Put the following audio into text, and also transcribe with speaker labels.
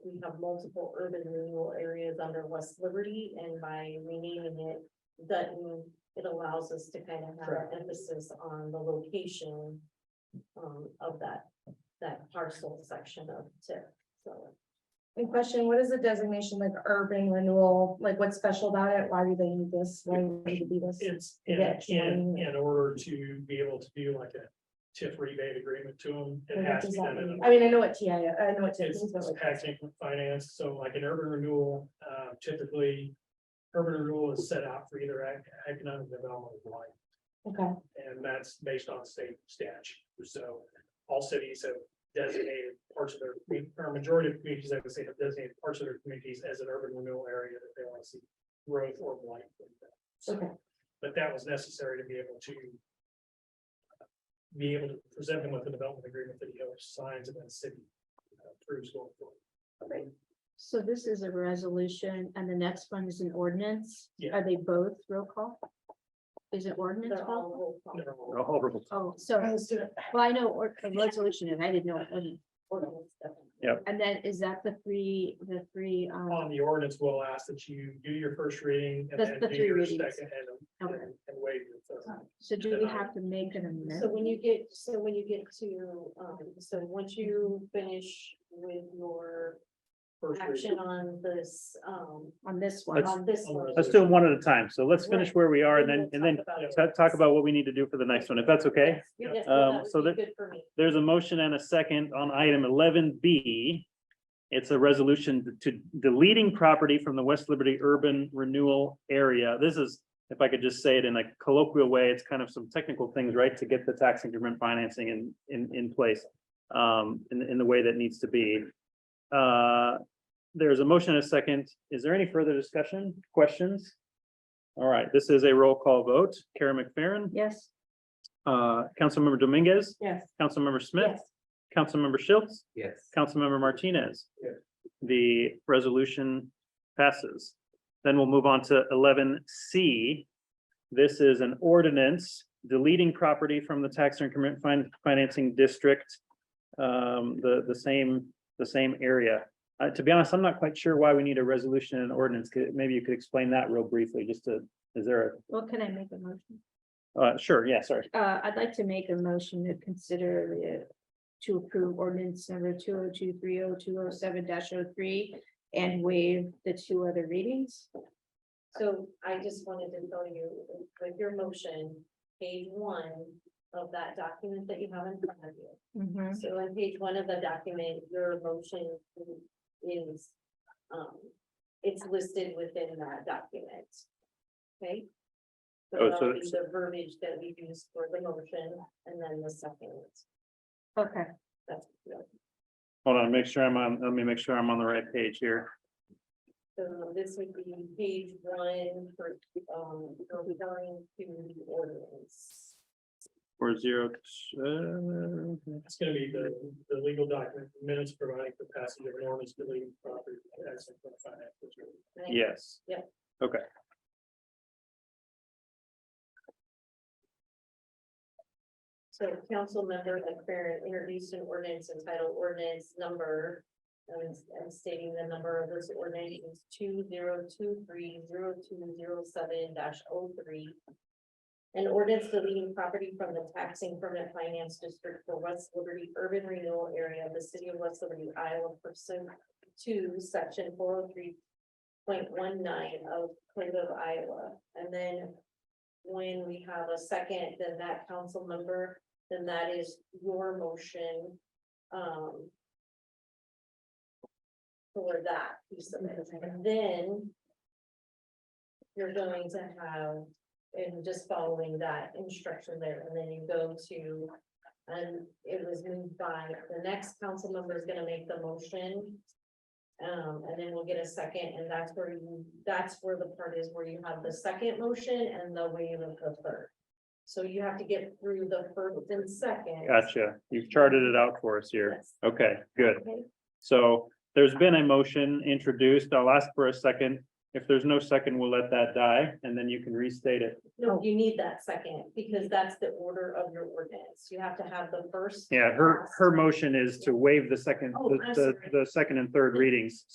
Speaker 1: have multiple urban renewal areas under West Liberty, and by renaming it Dutton, it allows us to kind of have
Speaker 2: Correct.
Speaker 1: emphasis on the location um, of that, that parcel section of TIF, so.
Speaker 3: And question, what is the designation like urban renewal? Like what's special about it? Why do they need this? Why do they need to be this?
Speaker 2: It's in,
Speaker 3: That's
Speaker 2: in,
Speaker 3: one.
Speaker 2: in order to be able to do like a TIF rebate agreement to them, it
Speaker 3: Like, what
Speaker 2: has to
Speaker 3: does
Speaker 2: be
Speaker 3: that
Speaker 2: done in
Speaker 3: mean?
Speaker 2: a
Speaker 3: I mean, I know what TI, I know what TIF
Speaker 2: It's
Speaker 3: means, but
Speaker 2: it's
Speaker 3: like.
Speaker 2: tax increment finance, so like an urban renewal, uh, typically. Urban renewal is set out for either ec- economic development or blight,
Speaker 3: Okay,
Speaker 2: and that's based on state statute, so. All cities have designated parts of their, commu- or majority of communities, I would say, have designated parts of their communities as an urban renewal area that they want to see growth or blight. So,
Speaker 3: okay,
Speaker 2: But that was necessary to be able to. uh, Be able to present them with a development agreement that he signs and then city uh, approves going forward.
Speaker 4: So this is a resolution and the next one is an ordinance?
Speaker 2: Yeah.
Speaker 4: Are they both roll call? Is it ordinance
Speaker 1: they're all
Speaker 4: call?
Speaker 1: roll call.
Speaker 2: Never mind.
Speaker 5: Oh, roll-
Speaker 4: Oh, sorry.
Speaker 3: let's do it.
Speaker 4: Well, I know or a resolution and I didn't know. it wasn't.
Speaker 1: ordinance, definitely.
Speaker 4: And then is that the three, the three, um,
Speaker 2: on the ordinance, we'll ask that you do your first reading and
Speaker 4: The-
Speaker 2: then
Speaker 4: the
Speaker 2: do
Speaker 4: three
Speaker 2: your second
Speaker 4: readings.
Speaker 2: and,
Speaker 4: okay.
Speaker 2: and and waive your third.
Speaker 4: so do we have to make an
Speaker 1: So
Speaker 4: amendment?
Speaker 1: when you get, so when you get to, um, so once you finish with your
Speaker 2: First reading.
Speaker 1: action on this, um,
Speaker 4: On this one,
Speaker 1: on this one.
Speaker 5: Let's do them one at a time. So let's finish
Speaker 1: Right.
Speaker 5: where we are and then, and then
Speaker 1: we'll talk about it.
Speaker 5: ta- talk about what we need to do for the next one, if that's okay.
Speaker 1: Yes, yes,
Speaker 5: Um,
Speaker 1: that would
Speaker 5: so
Speaker 1: be
Speaker 5: that-
Speaker 1: Good for me.
Speaker 5: There's a motion and a second on item eleven B. It's a resolution to deleting property from the West Liberty Urban Renewal Area. This is, if I could just say it in a colloquial way, it's kind of some technical things, right, to get the tax increment financing in, in, in place. Um, in, in the way that needs to be. Uh, there's a motion and a second. Is there any further discussion, questions? All right, this is a roll call vote. Kara McFerrin,
Speaker 4: yes,
Speaker 5: uh, Councilmember Dominguez,
Speaker 3: Yes.
Speaker 5: Councilmember Smith.
Speaker 3: Yes.
Speaker 5: Councilmember Schultz,
Speaker 6: Yes.
Speaker 5: Councilmember Martinez.
Speaker 2: Yes.
Speaker 5: The resolution passes. Then we'll move on to eleven C. This is an ordinance deleting property from the tax increment fin- financing district. Um, the, the same, the same area. Uh, to be honest, I'm not quite sure why we need a resolution and ordinance. Could- Maybe you could explain that real briefly, just to, is there
Speaker 4: well, can I make a motion?
Speaker 5: a, uh, sure, yeah, sorry.
Speaker 4: Uh, I'd like to make a motion to consider the, to approve ordinance number two oh two three oh two oh seven dash oh three and waive the two other readings.
Speaker 1: So I just wanted to tell you, with your motion, page one of that document that you have in front of you.
Speaker 4: Mhm.
Speaker 1: So on page one of the document, your motion is, um, it's listed within that document. Okay? So
Speaker 5: Oh, so
Speaker 1: that'll be
Speaker 5: it's-
Speaker 1: the verbiage that we use for the motion and then the second,
Speaker 4: Okay,
Speaker 1: that's, so
Speaker 5: Hold on, make sure I'm on, let me make sure I'm on the right page here.
Speaker 1: this would be page one for, um, referring to the ordinance.
Speaker 5: Four zero, uh,
Speaker 2: It's gonna be the, the legal document minutes providing the passage of an ordinance deleting property. as a finance district.
Speaker 1: And I
Speaker 5: yes.
Speaker 1: Yep.
Speaker 5: Okay.
Speaker 1: So council member McFerrin introduced an ordinance entitled ordinance number. um, I'm stating the number of this ordinance is two zero two three zero two zero seven dash oh three. An ordinance deleting property from the taxing permanent finance district for West Liberty Urban Renewal Area of the city of West Liberty, Iowa pursuant to section four oh three point one nine of Code of Iowa. And then when we have a second, then that council member, then that is your motion. um, For that piece of it, and then. You're going to have, and just following that instruction there, and then you go to. And it was moved by, the next council member is gonna make the motion. Um, and then we'll get a second, and that's where you, that's where the part is where you have the second motion and the wave of the third. So you have to get through the first and second.
Speaker 5: Gotcha. You've charted it out for us here.
Speaker 1: Yes.
Speaker 5: Okay, good.
Speaker 1: Okay.
Speaker 5: So there's been a motion introduced. I'll ask for a second. If there's no second, we'll let that die and then you can restate it.
Speaker 1: No, you need that second, because that's the order of your ordinance, you have to have the first.
Speaker 5: Yeah, her, her
Speaker 1: last.
Speaker 5: motion is to waive the second,
Speaker 1: Oh, I'm
Speaker 5: the, the, the second and third readings.